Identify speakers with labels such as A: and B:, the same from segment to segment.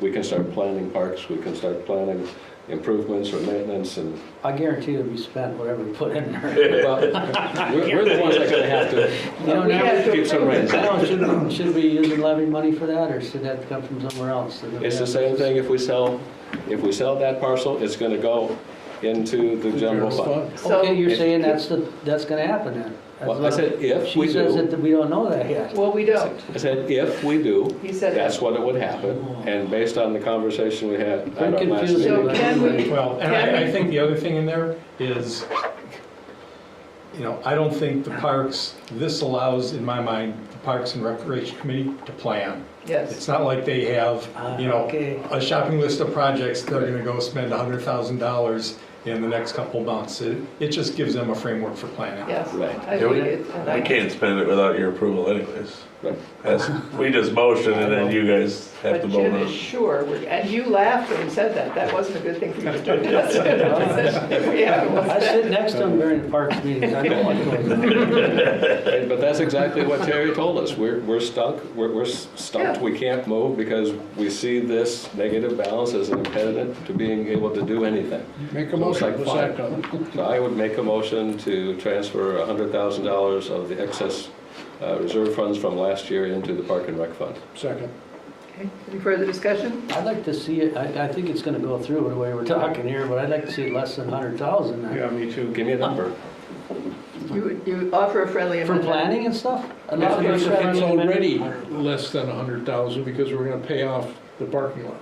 A: we can start planning parks, we can start planning improvements or maintenance and,
B: I guarantee it'll be spent whatever we put in there.
A: well, we're we're the ones that are gonna have
B: You don't
A: to
B: know.
A: keep some reins
B: I
A: on.
B: don't know, should, should we use the levy money for that, or should that come from somewhere else?
A: It's the same thing if we sell, if we sell that parcel, it's gonna go into the general fund.
B: Okay, you're saying that's the, that's gonna happen then? That's
A: Well, I
B: what-
A: said if we
B: She says
A: do.
B: that we don't know that yet.
C: Well, we don't.
A: I said, if we do,
C: He said
A: that's what it would happen, and based on the conversation we had at our
B: I'm
A: last
B: confused.
A: meeting.
C: So can we-
D: Well, and I,
C: Kevin?
D: I think the other thing in there is, you know, I don't think the parks, this allows, in my mind, the Parks and Recreation Committee to plan. It's
C: Yes.
D: not like they have, you
B: Ah,
D: know,
B: okay.
D: a shopping list of projects they're gonna go spend a hundred thousand dollars in the next couple months. It, it just gives them a framework for planning.
C: Yes.
A: Right.
C: I
E: Yeah, we-
C: think it's- and
E: We
C: I-
E: can't spend it without your approval anyways.
A: Right.
E: That's, we just motion and then you guys have to
C: But
E: vote
C: Jim
E: on
C: is
E: it.
C: sure, we're- and you laughed when he said that, that wasn't a good thing for you to do. That's a good position we have,
B: I
C: was that?
B: sit next to him during the parks meetings, I know what's going on.
A: Right, But that's exactly what Terry told us. We're, we're stuck, we're, we're s- stumped,
C: Yeah.
A: we can't move because we see this negative balance as an impediment to being able to do anything.
F: Make a
A: So it's like
F: motion, we'll
A: fine.
F: second.
A: So I would make a motion to transfer hundred thousand dollars of the excess uh, reserve funds from last year into the Park and Rec Fund.
F: Second.
C: Okay, Any further discussion?
B: I'd like to see it, I, I think it's gonna go through the way we're talking here, but I'd like to see less than hundred thousand.
F: me too.
A: Give me a number.
C: You, would- you offer a friendly
B: For
C: amendment?
B: planning and stuff? A lot of
F: It's
B: those
F: it's
B: friendly amendments-
F: already less than a hundred thousand because we're gonna pay off the parking lot.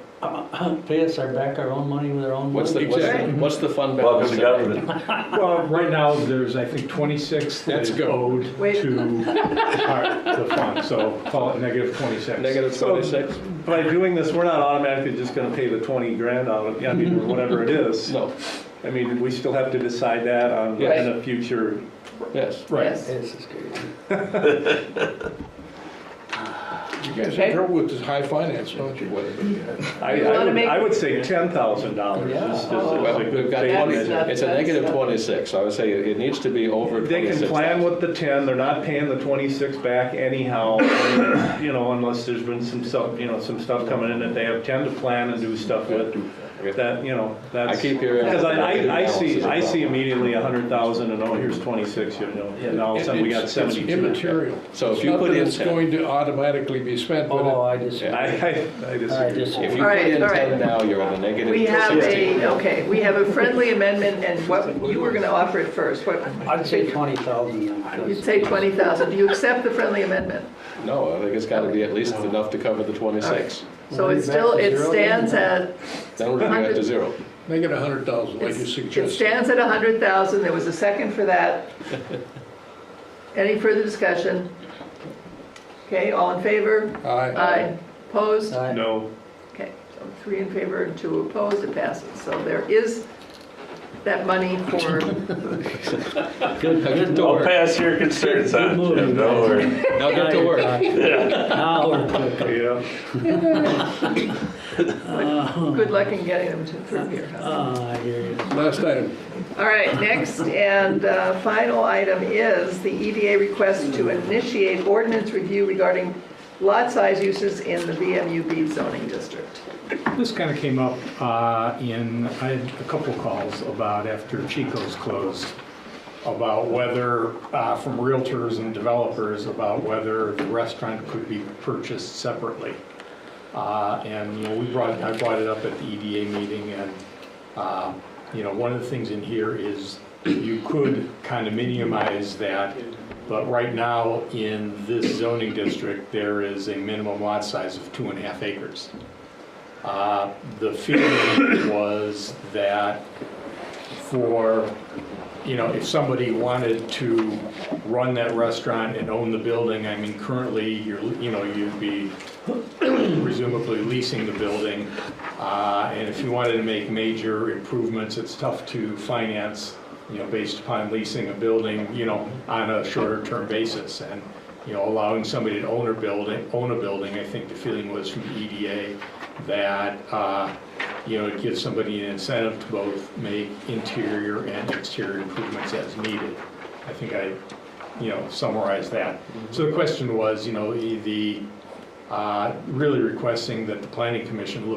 B: Pay us our back, our own money with our own
A: What's the,
B: money?
A: what's the,
F: Exactly.
A: what's the fund
E: Welcome
A: balance?
E: to
A: today?
E: government.
D: Well, right now, there's, I think, 26 that
F: Let's
D: is
F: go.
D: owed
C: Wait.
D: to our- the fund, so call it negative 26.
A: Negative twenty-six?
G: By doing this, we're not automatically just gonna pay the 20 grand out of, I mean, or whatever it is.
A: No,
G: I mean, we still have to decide that on,
A: Yes.
G: in a future,
A: yes.
D: Right.
C: Yes.
B: This is crazy.
F: You guys
C: Okay.
F: have trouble with this high finance, don't you?
G: I,
C: You
G: I
C: wanna
G: would,
C: make-
G: I would say $10,000 is,
B: Yeah.
G: is is
A: Oh, Well,
G: a
A: we've
G: good
A: got twenty,
G: statement.
C: not-
A: it's a negative twenty-six. I would say it it needs to be over
G: They
A: twenty-six.
G: can plan with the 10, they're not paying the 26 back anyhow, you know, unless there's been some, stuff, you know, some stuff coming in that they have 10 to plan and do stuff with. That, you know,
A: I
G: that's.
A: keep hearing.
G: Because I, I, I
A: Balance is
G: see,
A: a
G: I see
A: problem.
G: immediately a hundred thousand and oh, here's twenty-six, you know, and all of a sudden we got
F: It's- it's
G: seventy-two.
F: Immaterial.
A: So if
F: It's
A: you
F: not
A: put
F: that
A: in
F: It's
A: 10.
F: going to automatically be spent,
B: Oh,
F: but
B: I just,
G: I,
B: I
G: I, I
B: just,
G: disagree.
A: If you
C: All
A: put
C: right,
A: in
C: all right.
A: ten now, you're at a negative
C: We have
A: sixteen.
C: a, okay, we have a friendly amendment, and what, you were gonna offer it first, what?
B: I'd say twenty thousand.
C: You'd say 20,000, do you accept the friendly amendment?
A: No, I think it's gotta be at least enough to cover the twenty-six.
C: So
B: Well, you're
C: it's still,
B: back to
C: it
B: zero
C: stands at,
A: Then we're gonna get to zero.
F: make it a hundred thousand like you
C: it's- it
F: suggested.
C: stands at 100,000, there was a second for that. Any further discussion? Okay, all in favor?
F: Aye.
C: Opposed?
B: Aye.
G: No,
C: Okay, so three in favor and two opposed, it passes. So there is that money for,
B: Good, good
E: I'll
B: door.
E: pass your concerns on,
B: Good
E: Jim,
B: move.
E: don't worry.
A: Now get to
G: Uh,
A: work.
B: Now we're cooking.
G: yeah.
C: good luck in getting them to through here. huh?
B: Ah, I hear you.
F: Last item.
C: All right, next and uh, final item is the EDA request to initiate ordinance review regarding lot size uses in the VMUB zoning district.
D: This kind of came up uh, in, I had a couple calls about after Chico's closed, about whether, uh, from realtors and developers, about whether the restaurant could be purchased separately. Uh, And, you know, we brought, I brought it up at the EDA meeting, and, uh, you know, one of the things in here is you could condominiumize that, but right now, in this zoning district, there is a minimum lot size of two and a half acres. Uh, The feeling was that for, you know, if somebody wanted to run that restaurant and own the building, I mean, currently, you're, you know, you'd be presumably leasing the building. Uh, And if you wanted to make major improvements, it's tough to finance, you know, based upon leasing a building, you know, on a shorter-term basis. And, you know, allowing somebody to own a building, own a building, I think the feeling was from EDA that, uh, you know, it gives somebody an incentive to both make interior and exterior improvements as needed. I think I, you know, summarized that. So the question was, you know, the- the, uh, really requesting that the planning commission look